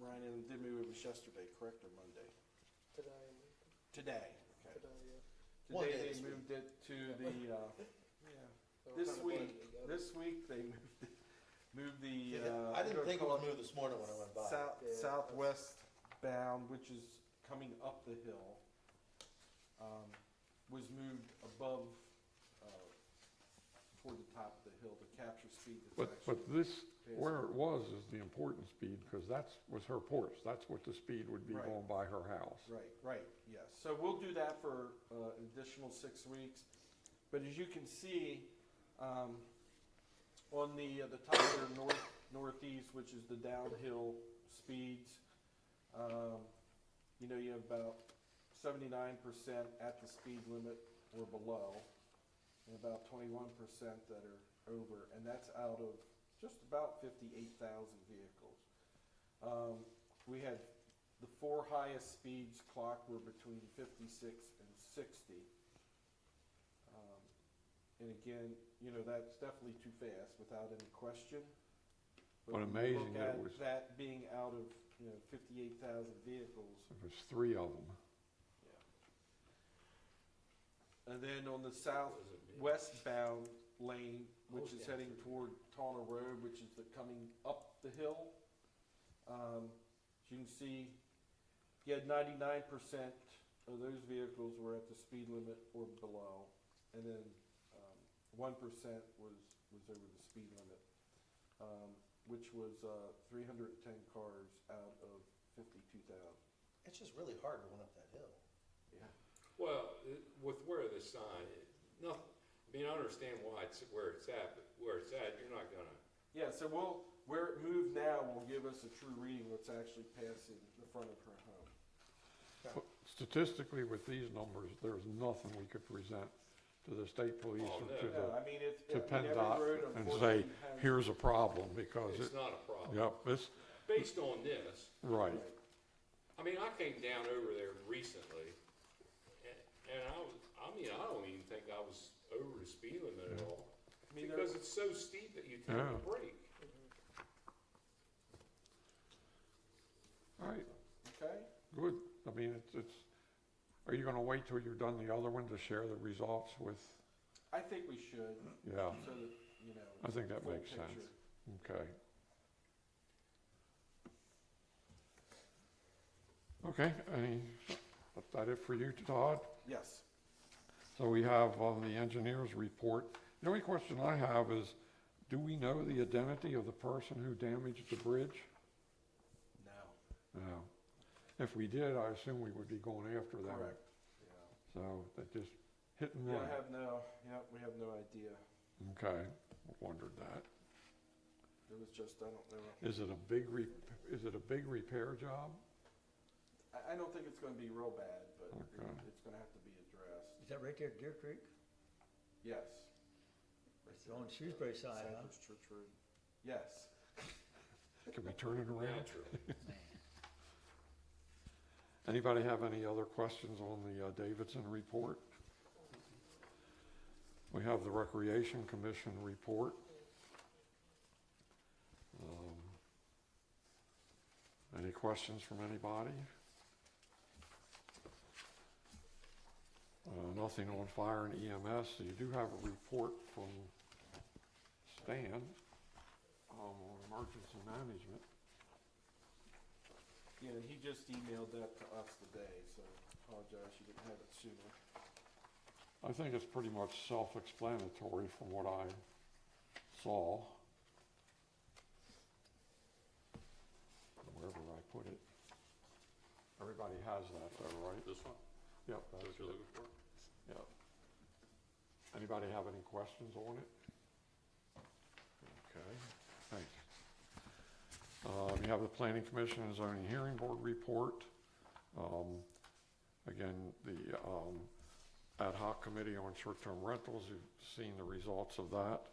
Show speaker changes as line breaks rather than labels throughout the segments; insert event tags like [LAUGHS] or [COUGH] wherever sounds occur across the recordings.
And then maybe it was yesterday, correct, or Monday?
Today,
Today, okay.
today, yeah.
Today
day
they
this week.
moved it [LAUGHS] to the, uh, yeah,
They were
this
kinda blended
week,
together.
this week they moved, it- moved the. uh,
I didn't
they're
think it would
calling
move this morning when I went by.
South,
Yeah.
southwest bound, which is coming up the hill, um, was moved above, uh, toward the top of the hill to capture speed that's
But,
actually.
but this,
Yes.
where it was is the important speed, because that's, was her Porsche, that's what the speed would be
Right.
going by her house.
Right, right, yes. So we'll do that for uh, an additional six weeks. But as you can see, um, on the, uh, the top there, north, northeast, which is the downhill speeds, um, you know, you have about seventy-nine percent at the speed limit or below, and about twenty-one percent that are over, and that's out of just about fifty-eight thousand vehicles. Um, we had, the four highest speeds clocked were between fifty-six and sixty. Um, And again, you know, that's definitely too fast, without any question.
But
when you
amazing
look
that it
at
was-
That being out of, you know, fifty-eight thousand vehicles,
There was three of them.
And then on the southwestbound lane, which is heading toward Tawner Road, which is the coming up the hill, um, as you can see, you had ninety-nine percent of those vehicles were at the speed limit or below, and then, um, one percent was, was over the speed limit, um, which was, uh, three hundred and ten cars out of fifty-two thousand.
It's just really hard going up that hill.
Yeah.
Well, it- with where the sign, it- nothing, I mean, I understand why it's where it's at, but where it's at, you're not gonna,
Yeah, so we'll, where it moved now will give us a true reading what's actually passing the front of her home.
But Statistically, with these numbers, there's nothing we could present to the state police or
Oh, no.
to
No,
the,
I mean, it's.
to
I mean, every road,
PennDOT and say,
unfortunately, has-
here's a problem, because
it's
Oh, it,
not a problem.
yep, this,
Based on this,
right.
I mean, I came down over there recently, a- and I was, I mean, I don't even think I was over the speed limit at all.
I mean, there-
Because it's so steep that you take
Yeah.
a break.
Mm-hmm.
All right,
Okay,
good. I mean, it's, it's, are you gonna wait till you're done the other one to share the results with,
I think we should,
yeah,
so that, you know.
I think that
full
makes sense.
picture.
okay. Okay, any, is that it for you, Todd?
Yes,
So we have on the engineer's report, the only question I have is, do we know the identity of the person who damaged the bridge?
no,
No. If we did, I assume we would be going after them.
correct, yeah.
So that just hit and
Yeah, I
run.
have no, yeah, we have no idea.
Okay, wondered that.
It was just, I don't know.
Is it a big, re- is it a big repair job?
I, I don't think it's gonna be real bad, but it-
Okay.
it's gonna have to be addressed.
Is that right there, Deer Creek?
Yes.
It's on Shrewsbury side, huh?
Cypress Church Road. Yes.
Can we turn it around?
Naturally.
Anybody have any other questions on the uh, Davidson report? We have the Recreation Commission report. Um, Any questions from anybody? Uh, Nothing on fire and EMS. So You do have a report from Stan um, on emergency management.
Yeah, and he just emailed that to us today, so apologize you didn't have it sooner.
I think it's pretty much self-explanatory from what I saw. Wherever I put it. Everybody has that though, right?
This one,
Yep, that's it,
for?
yep. Anybody have any questions on it? Okay, thanks. Uh, we have the Planning Commission and Zoning Hearing Board report. Um, Again, the um, ad hoc committee on short-term rentals, you've seen the results of that.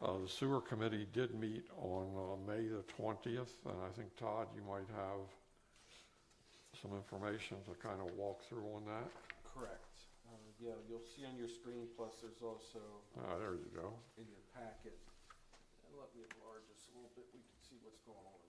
Uh, The sewer committee did meet on uh, May the 20th, and I think, Todd, you might have some information to kind of walk through on that.
Correct. Uh, Yeah, you'll see on your screen, plus there's also
Ah, there you go.
in your packet. And let me enlarge this a little bit, we can see what's going on.